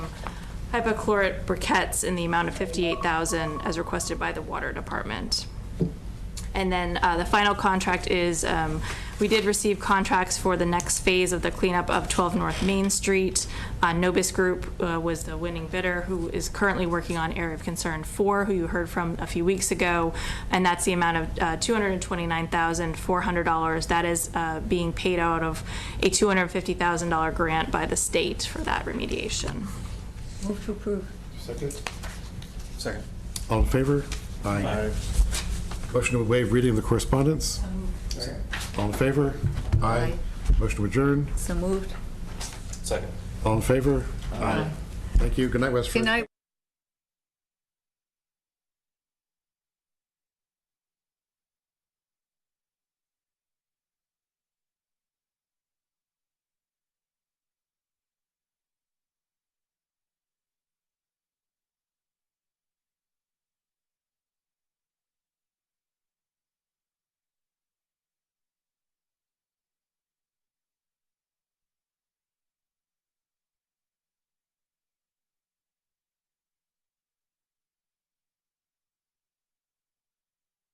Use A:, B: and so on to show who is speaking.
A: hypochlorite briquettes in the amount of 58000 as requested by the Water Department. And then uh, the final contract is, um, we did receive contracts for the next phase of the cleanup of 12 North Main Street. Uh, Nobis Group uh, was the winning bidder, who is currently working on Area of Concern 4, who you heard from a few weeks ago, and that's the amount of uh, $229,400. That is uh, being paid out of a $250,000 grant by the state for that remediation.
B: Move to approve.
C: Second?
D: Second.
C: All in favor? Motion to waive reading of the correspondence? All in favor?
B: Aye.
C: Motion to adjourn?
B: So moved.
D: Second.
C: All in favor? Aye. Thank you. Good night, Westford.
B: Good night.